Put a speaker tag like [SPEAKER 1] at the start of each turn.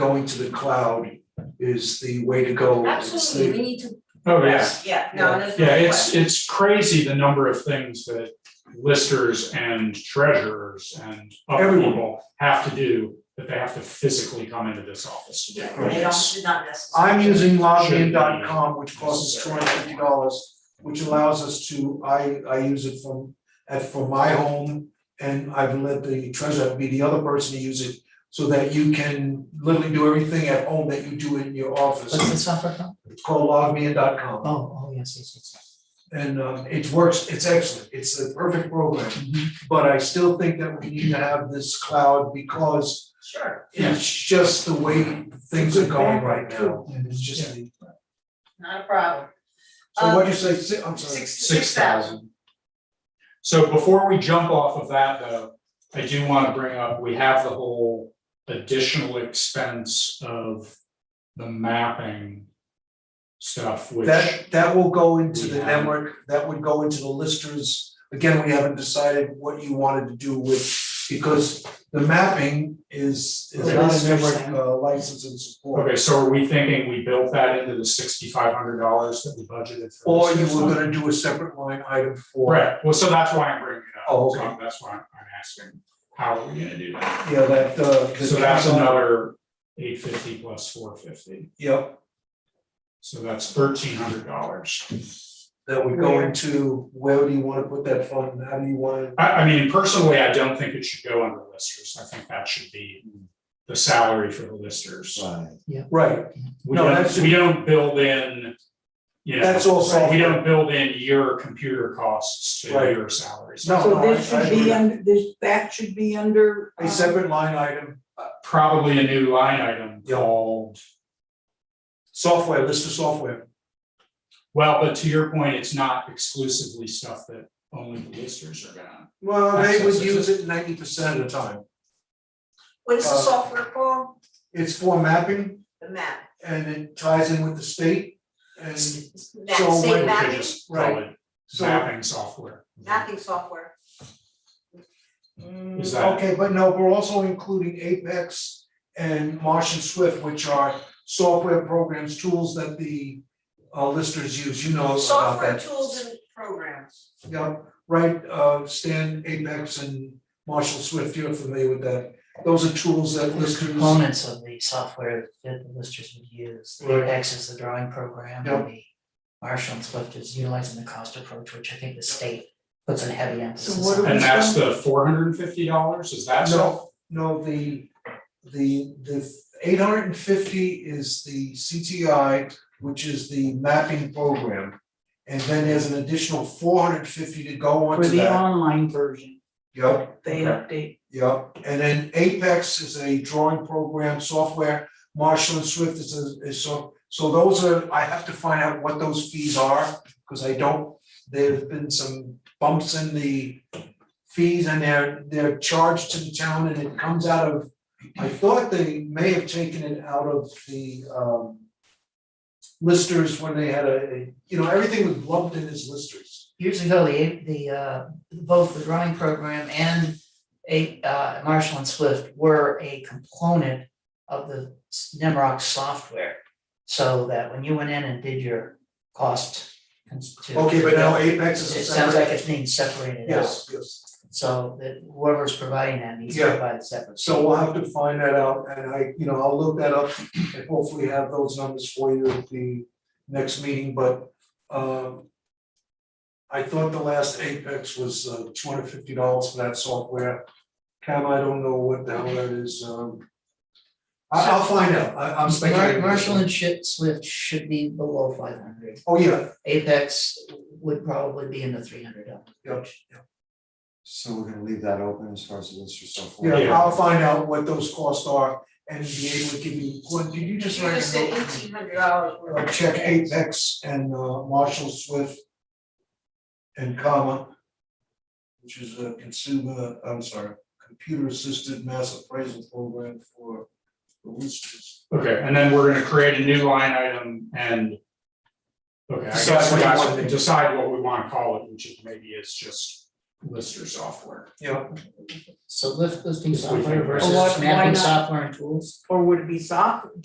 [SPEAKER 1] going to the cloud is the way to go. It's
[SPEAKER 2] Absolutely, we need to,
[SPEAKER 3] Oh, yeah.
[SPEAKER 2] yeah, no, there's no
[SPEAKER 3] Yeah, it's,
[SPEAKER 2] question.
[SPEAKER 3] it's crazy the number of things that listers and treasurers and other
[SPEAKER 1] Everyone.
[SPEAKER 3] people have to do, that they have to physically come into this office to do.
[SPEAKER 2] They don't,
[SPEAKER 3] It's-
[SPEAKER 2] do not necessarily.
[SPEAKER 1] I'm using
[SPEAKER 3] Should be.
[SPEAKER 1] login.com, which costs two hundred fifty dollars, which allows us to, I I use it from at for my home. And I've let the treasurer be the other person to use it, so that you can literally do everything at home that you do in your
[SPEAKER 4] What's
[SPEAKER 1] office.
[SPEAKER 4] the software called?
[SPEAKER 1] It's called logmein.com
[SPEAKER 4] Oh, oh, yes, yes, yes.
[SPEAKER 1] and um it works, it's excellent, it's the perfect program.
[SPEAKER 4] Mhm.
[SPEAKER 1] But I still think that we need to have this cloud because
[SPEAKER 2] Sure,
[SPEAKER 1] it's just the way things are going right now.
[SPEAKER 4] And
[SPEAKER 1] It's just the,
[SPEAKER 2] not a problem. Um,
[SPEAKER 1] so what do you say, si- I'm sorry.
[SPEAKER 2] Six, six thousand.
[SPEAKER 3] So before we jump off of that, though, I do want to bring up, we have the whole additional expense of the mapping stuff, which.
[SPEAKER 1] That that will go into
[SPEAKER 3] We
[SPEAKER 1] the
[SPEAKER 3] haven't-
[SPEAKER 1] network, that would go into the listers. Again, we haven't decided what you wanted to do with, because the mapping is is
[SPEAKER 4] Okay.
[SPEAKER 1] not a
[SPEAKER 4] Listers
[SPEAKER 1] network
[SPEAKER 4] thing.
[SPEAKER 1] uh, license and support.
[SPEAKER 3] Okay, so are we thinking we built that into the sixty-five hundred dollars that we budgeted for?
[SPEAKER 1] Or you
[SPEAKER 3] this
[SPEAKER 1] were
[SPEAKER 3] system?
[SPEAKER 1] gonna do a separate line item for.
[SPEAKER 3] Right, well, so that's why I'm bringing it up.
[SPEAKER 1] Oh,
[SPEAKER 3] So That's why I'm I'm asking, how are we gonna do that?
[SPEAKER 1] Yeah, that uh. the-
[SPEAKER 3] So that's another eight fifty plus four fifty,
[SPEAKER 1] Yep.
[SPEAKER 3] so that's thirteen hundred dollars.
[SPEAKER 1] that would go
[SPEAKER 2] Where?
[SPEAKER 1] into, where do you wanna put that fund, how do you wanna?
[SPEAKER 3] I, I mean, personally, I don't think it should go under listers, I think that should be the salary for the listers.
[SPEAKER 5] Right.
[SPEAKER 1] Right,
[SPEAKER 3] We
[SPEAKER 1] No, that
[SPEAKER 3] don't,
[SPEAKER 1] should-
[SPEAKER 3] we don't build in, you know.
[SPEAKER 1] That's all
[SPEAKER 3] We
[SPEAKER 1] software.
[SPEAKER 3] don't build in your computer costs to
[SPEAKER 1] Right.
[SPEAKER 3] your salaries.
[SPEAKER 1] No,
[SPEAKER 6] So this
[SPEAKER 1] I- I
[SPEAKER 6] should be
[SPEAKER 1] agree.
[SPEAKER 6] under, this, that should be under.
[SPEAKER 1] a
[SPEAKER 6] um,
[SPEAKER 1] separate line item,
[SPEAKER 3] Probably a new line item
[SPEAKER 1] Yeah.
[SPEAKER 3] called
[SPEAKER 1] software, list of software,
[SPEAKER 3] Well, but to your point, it's not exclusively stuff that only the listers are gonna.
[SPEAKER 1] well, they would
[SPEAKER 3] Access,
[SPEAKER 1] use
[SPEAKER 3] is
[SPEAKER 1] it ninety percent of the time.
[SPEAKER 2] What is the
[SPEAKER 1] Uh,
[SPEAKER 2] software called?
[SPEAKER 1] It's for mapping
[SPEAKER 2] The map.
[SPEAKER 1] and it ties in with the state and
[SPEAKER 2] Map,
[SPEAKER 1] so when-
[SPEAKER 2] state
[SPEAKER 3] We could
[SPEAKER 2] mapping,
[SPEAKER 3] just call it
[SPEAKER 1] so,
[SPEAKER 3] mapping software.
[SPEAKER 2] mapping software. Mm,
[SPEAKER 3] Is that-
[SPEAKER 1] okay, but no, we're also including Apex and Marsh and Swift, which are software programs, tools that the uh listers use, you know about
[SPEAKER 2] Software
[SPEAKER 1] that.
[SPEAKER 2] tools and programs.
[SPEAKER 1] Yeah, right, uh, Stan Apex and Marshall Swift, you're familiar with that. Those are tools that
[SPEAKER 4] The
[SPEAKER 1] listers.
[SPEAKER 4] components of the software that the listers would use, the
[SPEAKER 1] Right.
[SPEAKER 4] index is the drawing program,
[SPEAKER 1] Yeah.
[SPEAKER 4] and the Marshall and Swift is utilizing the cost approach, which I think the state puts a heavy emphasis
[SPEAKER 6] what do
[SPEAKER 4] on.
[SPEAKER 3] And
[SPEAKER 6] we
[SPEAKER 3] that's the four hundred and fifty dollars, is that so?
[SPEAKER 1] No, no, the, the, the eight hundred and fifty is the CTI, which is the mapping program. And then there's an additional four hundred and fifty to go
[SPEAKER 6] For
[SPEAKER 1] onto
[SPEAKER 6] the
[SPEAKER 1] that.
[SPEAKER 6] online version,
[SPEAKER 1] Yep.
[SPEAKER 6] they update.
[SPEAKER 1] Yeah, and then Apex is a drawing program software, Marshall and Swift is a, is so, so those are, I have to find out what those fees are, because I don't, there've been some bumps in the fees and they're, they're charged to the town and it comes out of, I thought they may have taken it out of the, um, listers when they had a, a- you know, everything was lumped in as listers.
[SPEAKER 4] Years ago, the the uh both the drawing program and a uh Marshall and Swift were a component of the Nemrock software. So that when you went in and did your cost cons- to.
[SPEAKER 1] Okay, but now Apex is a
[SPEAKER 4] It
[SPEAKER 1] separate.
[SPEAKER 4] sounds like it's being separated out.
[SPEAKER 1] Yes, yes.
[SPEAKER 4] So that whoever's providing that needs to
[SPEAKER 1] Yeah.
[SPEAKER 4] provide a separate.
[SPEAKER 1] So we'll have to find that out and I, you know, I'll look that up and hopefully have those numbers for you at the next meeting, but um. I thought the last Apex was uh two hundred fifty dollars for that software. Cam, I don't know what the hell that is, um. I I'll find out, I I'm
[SPEAKER 4] Mar-
[SPEAKER 1] speculating.
[SPEAKER 4] Marshall and Shi- Swift should be below five hundred.
[SPEAKER 1] Oh, yeah,
[SPEAKER 4] Apex would probably be in the three hundred dollars.
[SPEAKER 1] yeah,
[SPEAKER 5] So we're gonna leave that open as far as the list or so forth.
[SPEAKER 1] yeah,
[SPEAKER 3] Yeah.
[SPEAKER 1] I'll find out what those costs are and be able to give you, what, did you
[SPEAKER 2] You
[SPEAKER 1] just write a
[SPEAKER 2] just said
[SPEAKER 1] note?
[SPEAKER 2] eighteen hundred dollars worth
[SPEAKER 1] uh,
[SPEAKER 2] of
[SPEAKER 1] check
[SPEAKER 2] things.
[SPEAKER 1] Apex and uh, Marshall Swift and comma, which is a consumer, I'm sorry, computer assisted mass appraisal program for the listers.
[SPEAKER 3] Okay, and then we're gonna create a new line item and. Okay, I
[SPEAKER 1] Decide
[SPEAKER 3] guess
[SPEAKER 1] what
[SPEAKER 3] we
[SPEAKER 1] you
[SPEAKER 3] guys
[SPEAKER 1] want to
[SPEAKER 3] can
[SPEAKER 1] do.
[SPEAKER 3] decide what we wanna call it, which it maybe is just lister software.
[SPEAKER 4] So lift listing
[SPEAKER 3] If we
[SPEAKER 4] software
[SPEAKER 3] can-
[SPEAKER 6] Well,
[SPEAKER 4] versus
[SPEAKER 6] why- why
[SPEAKER 4] mapping
[SPEAKER 6] not?
[SPEAKER 4] software and tools?
[SPEAKER 6] Or would it be soft,